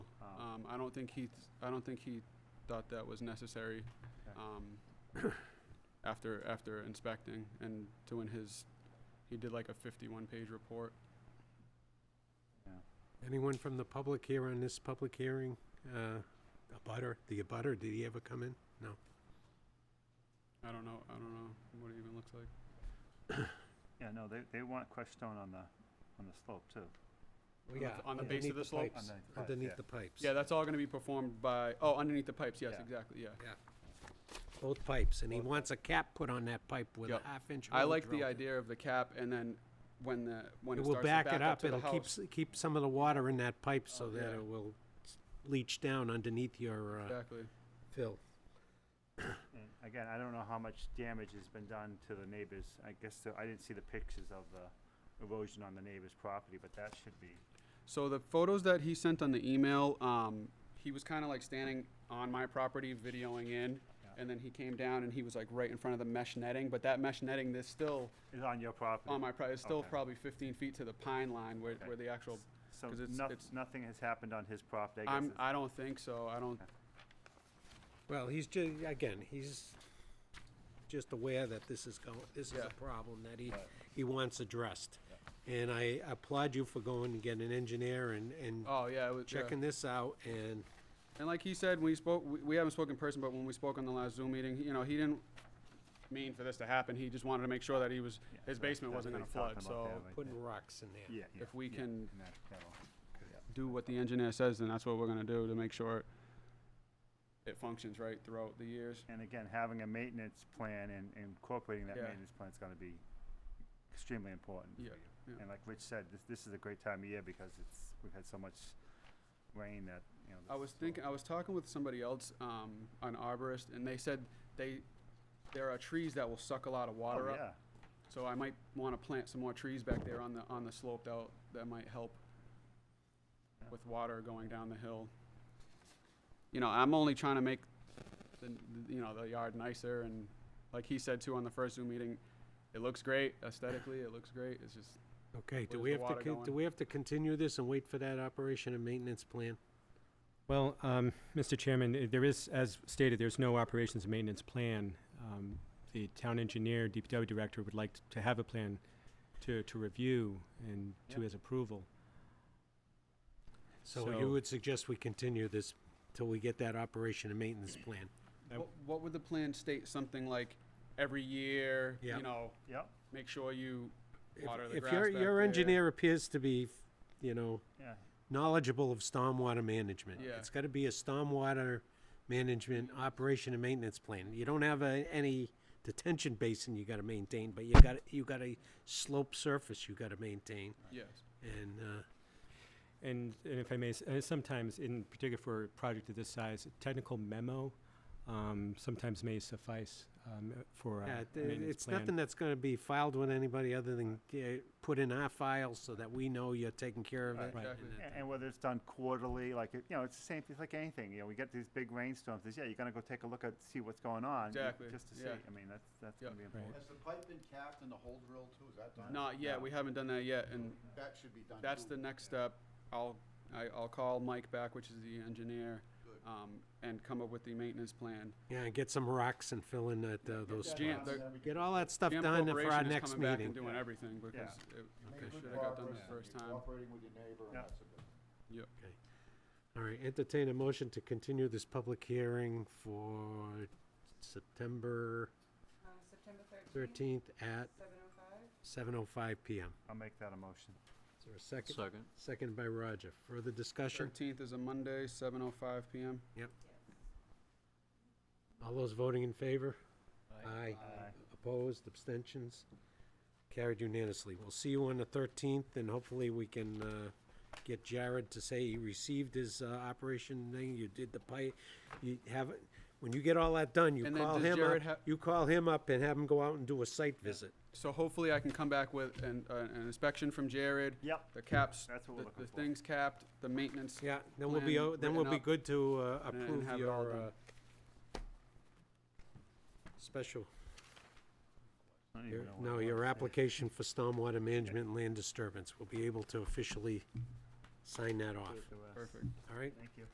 Um, I don't think he, I don't think he thought that was necessary, Okay. um, after, after inspecting and doing his, he did like a fifty-one page report. Anyone from the public here on this public hearing? Uh, A butter, the abutter, did he ever come in? I don't know, I don't know what it even looks like. Yeah, no, they, they want crushed stone on the, on the slope too. On the- on the base of the slope? pipes, Underneath the pipes, yeah. Underneath the pipes. Yeah, that's all gonna be performed by, oh, underneath the pipes, yes, Yeah. exactly, yeah. Both pipes, and he Both wants a cap put on that pipe with a Yep. half inch. I hole like the drilled. idea of the cap and then when the, when It it will starts to back it up, to the it'll keep, house. s- keep some of the water in that pipe so Oh, that yeah. it will s- leach down underneath your uh, Exactly. fill. And again, I don't know how much damage has been done to the neighbors. I guess, the- I didn't see the pictures of the erosion on the neighbor's property, but that should be, So the photos that he sent on the email, um, he was kind of like standing on my property, videoing in, Yeah. and then he came down and he was like right in front of the mesh netting. But that mesh netting, there's still is on your property. on my property, it's still Okay. probably 15 feet to the pine line where, Okay. where the actual. So 'cause it's- noth- it's- nothing has happened on his property, I guess. I'm, it's- I don't think so. I don't. Well, he's ju, again, he's just aware that this is going, this is Yeah. a problem that he, Right. he wants addressed. And I applaud you for going and getting an engineer and, and Oh yeah, it was, yeah. checking this out and, And like he said, we spoke. We, we haven't spoken in person, but when we spoke on the last Zoom meeting, you know, he didn't mean for this to happen. He just wanted to make sure that he was Yeah, his that's- basement that's wasn't what going to he's talking flood. about So there, right putting there. rocks in there. Yeah, yeah. if we yeah, can- and that- that'll- do what the engineer says, then that's what we're gonna do to make sure it functions right throughout the years. And again, having a maintenance plan and and incorporating that Yeah. maintenance plan is gonna be extremely important. for Yeah, you. yeah. And like Rich said, this, this is a great time of year because it's, we've had so much rain that, you know. I this was is all- thinking, I was talking with somebody else, um, an arborist, and they said they, there are trees that will suck a lot of Oh, water up. yeah, So I might wanna plant some more trees back there on the, on the slope that, that might help Yeah. with water going down the hill. You know, I'm only trying to make the, you know, the yard nicer and like he said too on the first Zoom meeting, it looks great aesthetically, it looks great, it's just, Okay, do Where's we the have to, water con- do going? we have to continue this and wait for that operation and maintenance plan? Well, um, Mr. Chairman, eh, there is, as stated, there's no operations and maintenance plan. Um, The town engineer, DPW director would like to have a plan to, to review and to Yeah. his approval. So you would suggest we continue this till we get that operation and maintenance plan? I- What, what would the plan state? Something like every year, Yeah. you know, yep, make sure you If- water the If grass your, back your there. engineer appears to be, you know, yeah. knowledgeable of stormwater management. Yeah. It's gotta be a stormwater management operation and maintenance plan. You don't have a, any detention basin you gotta maintain, but you got, you got a slope surface you gotta maintain. Yes. And, uh, And, and if I may, s- eh, sometimes, in particular for a project of this size, a technical memo um, sometimes may suffice um, eh, for yeah, a it- maintenance it's nothing plan. that's gonna be filed with anybody other than, uh, put in our files so that we know you're taking care of it. Right. and Exactly. that- And, and whether it's done quarterly, like, it- you know, it's the same, it's like anything, you know, we get these big rainstorms, it's, yeah, you're gonna go take a look at, see what's going on. you- Exactly, Just to see, yeah. I mean, that's, that's Yep. gonna be Right. important. Has the pipe been capped and the hole drilled too? Is that done? Not yet. We haven't done that yet, and That should be done. that's too. the next step. I'll I, I'll call Mike back, which is the engineer, Good. um, and come up with the maintenance plan. Yeah, and get some rocks and fill in that, uh, Get those that Jan- done, the- then we can- Get all that stuff Jam done for Corporation our is next coming back and meeting. doing Yeah. everything because it, You made they good should have got done progress, the you're first time. Cooperating with your neighbor, and Yeah. that's a good. Yep. All right, entertain a motion to continue this public hearing for September Uh, September thirteenth, 13th at seven oh five. 7:05 PM. I'll make that a motion. Is there a second? Second. Second by Roger. Further discussion? Thirteenth is a Monday, seven oh five p.m. All those voting in favor? Aye. Opposed, abstentions? Carried unanimously. We'll see you on the 13th, and hopefully we can uh, get Jared to say he received his uh, operation thing, you did the pipe, you have, it- when you get all that done, you And then call does him Jared up, ha- you call him up and have him go out and do a site visit. So hopefully I can come back with an, uh, an inspection from Jared. Yep. The caps, That's what we're the, looking the for. things capped, the maintenance. Yeah, then we'll be, Plan o- then we'll written be up good to uh, and approve have it all your done. uh, special, I don't even your- know what I no, want your to say. application for stormwater management and land disturbance. We'll be able to officially sign that Do off, it the rest. Perfect. all right? Thank you.